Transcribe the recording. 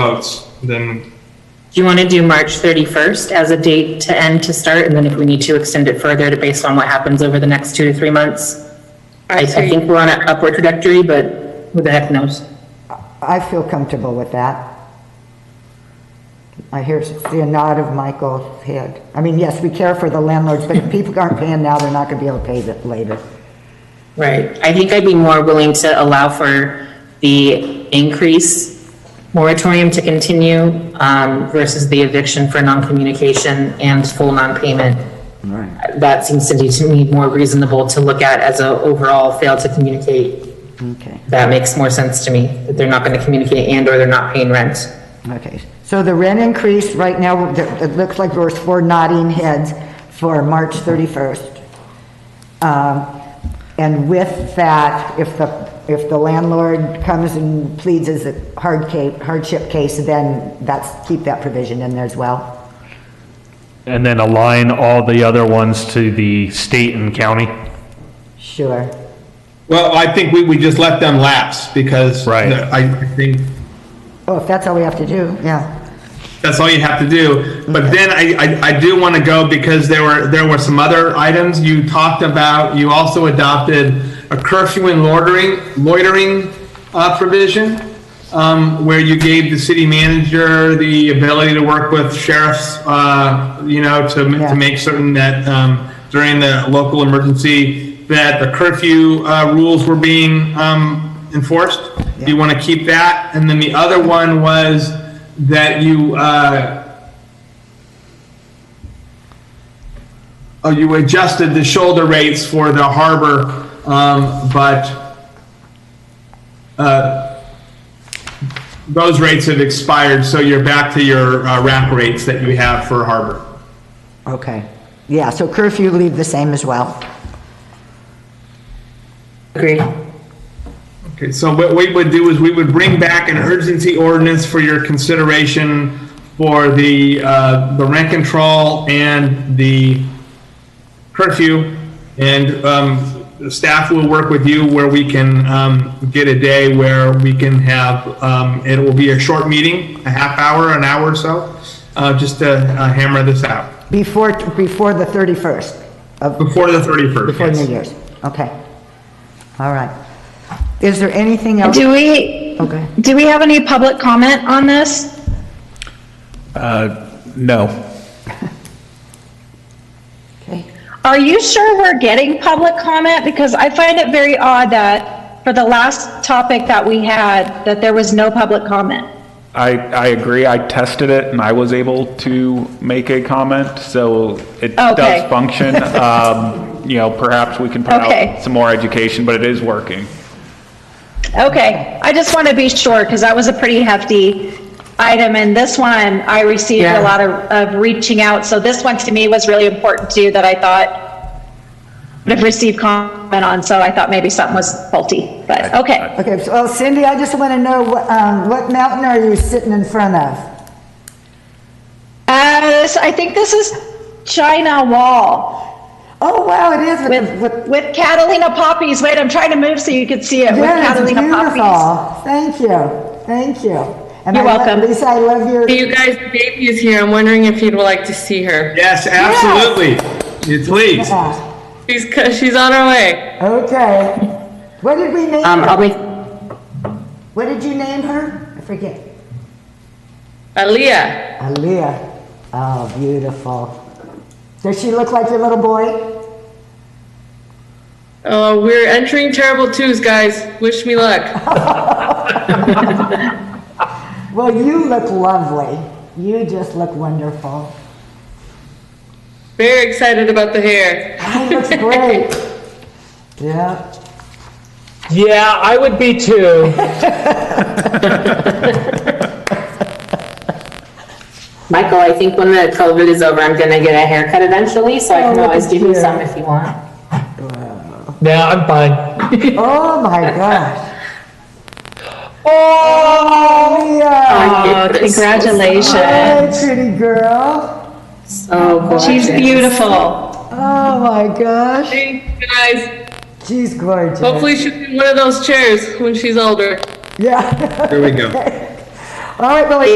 votes, then Do you want to do March 31st as a date to end to start? And then if we need to extend it further to based on what happens over the next two to three months? I, I think we're on an upward trajectory, but who the heck knows? I feel comfortable with that. I hear see a nod of Michael's head. I mean, yes, we care for the landlords, but if people aren't paying now, they're not gonna be able to pay it later. Right. I think I'd be more willing to allow for the increase moratorium to continue um, versus the eviction for non-communication and full non-payment. Right. That seems to me to me more reasonable to look at as a overall fail to communicate. Okay, That makes more sense to me, that they're not going to communicate and/or they're not paying rent. okay. So the rent increase right now, it it looks like there's four nodding heads for March 31st. Um, And with that, if the, if the landlord comes and pleads as a hard ca- hardship case, then that's, keep that provision in there as well. And then align all the other ones to the state and county? Sure. well, I think we, we just let them lapse because Right. I I think Oh, if that's all we have to do, yeah. that's all you have to do. But then I, I, I do want to go because there were there were some other items you talked about. You also adopted a curfew and loitering loitering uh, provision um, where you gave the city manager the ability to work with sheriffs, uh, you know, to ma- Yeah. to make certain that um, during the local emergency that the curfew uh, rules were being um, enforced. Do you want to keep that? And then the other one was that you, uh, oh, you adjusted the shoulder rates for the harbor, um, but uh, those rates have expired, so you're back to your uh, rack rates that you have for harbor. Okay, yeah, so curfew leave the same as well. Agreed. Okay, so what we would do is we would bring back an urgency ordinance for your consideration for the, uh, the rent control and the curfew. And, um, the staff will work with you where we can, um, get a day where we can have, um, it will be a short meeting, a half hour, an hour or so, uh, just to uh, hammer this out Before, before the 31st of, before the 31st. before yes. New Year's, okay. All right. Is there anything else? Do we, Okay. do we have any public comment on this? No. Okay. Are you sure we're getting public comment? Because I find it very odd that for the last topic that we had, that there was no public comment. I, I agree. I tested it and I was able to make a comment, so it Okay. does function. Um, you know, perhaps we can put Okay. out some more education, but it is working. Okay, I just want to be sure because that was a pretty hefty item and this one I received Yeah. a lot of, of reaching out. So this one to me was really important too that I thought would have received comment on. So I thought maybe something was faulty, but okay. Okay, so well, Cindy, I just want to know, what, um, what mountain are you sitting in front of? Uh, this, I think this is China Wall Oh, wow, it is with, with, the- with. with Catalina poppies. Wait, I'm trying to move so you can see it with yeah, it's Catalina poppies. beautiful. Thank you, thank you. And You're I love- welcome. Lisa, I love your, Hey, You guys, the baby is here. I'm wondering if you'd like to see her. Yes, absolutely. You- Please. yeah, She's co- she's on her way. okay. What did we name Um, I'll her? make, What did you name her? I forget. Aaliyah. Aaliyah. Oh, beautiful. Does she look like your little boy? Uh, we're entering terrible twos, guys. Wish me luck. Well, you look lovely. You just look wonderful. Very excited about the hair. He looks great. Yeah. Yeah, I would be too. Michael, I think when the COVID is over, I'm gonna get a haircut eventually, so I Oh, can look always at give you you. some if you want. No, I'm fine. Oh my gosh. Oh, Aaliyah. Oh, Hey, Congratulations. pretty girl. So gorgeous. She's beautiful. Oh my gosh. Thanks, guys. She's gorgeous. Hopefully she'll be in one of those chairs when she's older. Yeah. There we go. All right, Willie.